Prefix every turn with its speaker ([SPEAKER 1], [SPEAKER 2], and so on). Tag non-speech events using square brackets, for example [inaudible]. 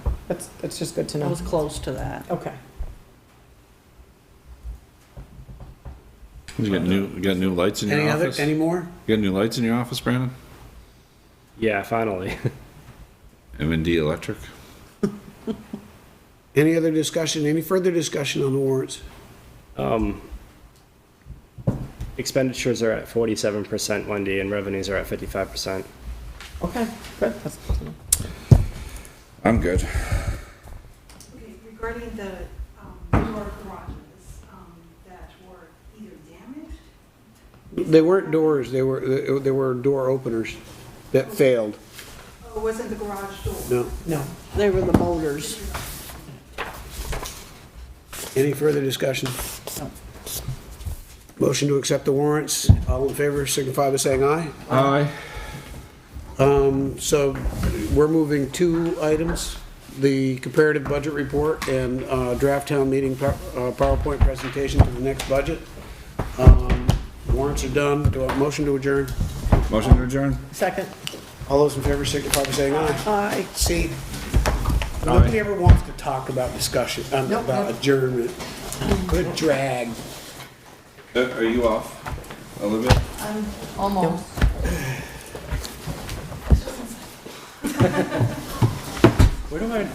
[SPEAKER 1] That's, that's just good to
[SPEAKER 2] I
[SPEAKER 1] know.
[SPEAKER 2] was close to that.
[SPEAKER 1] Okay.
[SPEAKER 3] You got new, you got new lights in your
[SPEAKER 4] Any other,
[SPEAKER 3] office?
[SPEAKER 4] any more?
[SPEAKER 3] You got new lights in your office, Brandon?
[SPEAKER 5] Yeah, finally. [laughs]
[SPEAKER 3] M and D Electric?
[SPEAKER 4] Any other discussion, any further discussion on the warrants?
[SPEAKER 5] Um, expenditures are at forty-seven percent one day, and revenues are at fifty-five percent.
[SPEAKER 1] Okay, good. That's good to know.
[SPEAKER 3] I'm good.
[SPEAKER 6] Okay, regarding the um, newer garages um, that were either damaged,
[SPEAKER 4] They weren't doors, they were, they were door openers that failed.
[SPEAKER 6] or wasn't the garage door?
[SPEAKER 4] No.
[SPEAKER 1] No.
[SPEAKER 2] They were the motors.
[SPEAKER 4] Any further discussion? Motion to accept the warrants. All in favor signify by saying aye.
[SPEAKER 3] Aye.
[SPEAKER 4] Um, So we're moving two items, the comparative budget report and uh, draft town meeting pow- uh, PowerPoint presentation to the next budget. Um, Warrants are done. Do I have a motion to adjourn?
[SPEAKER 3] Motion to adjourn?
[SPEAKER 1] Second.
[SPEAKER 4] All those in favor signify by saying aye.
[SPEAKER 1] Aye.
[SPEAKER 4] See, nobody ever wants to talk about discussion, um, about adjournment. Good drag.
[SPEAKER 3] Are you off a little bit?
[SPEAKER 7] Almost.
[SPEAKER 4] Where do I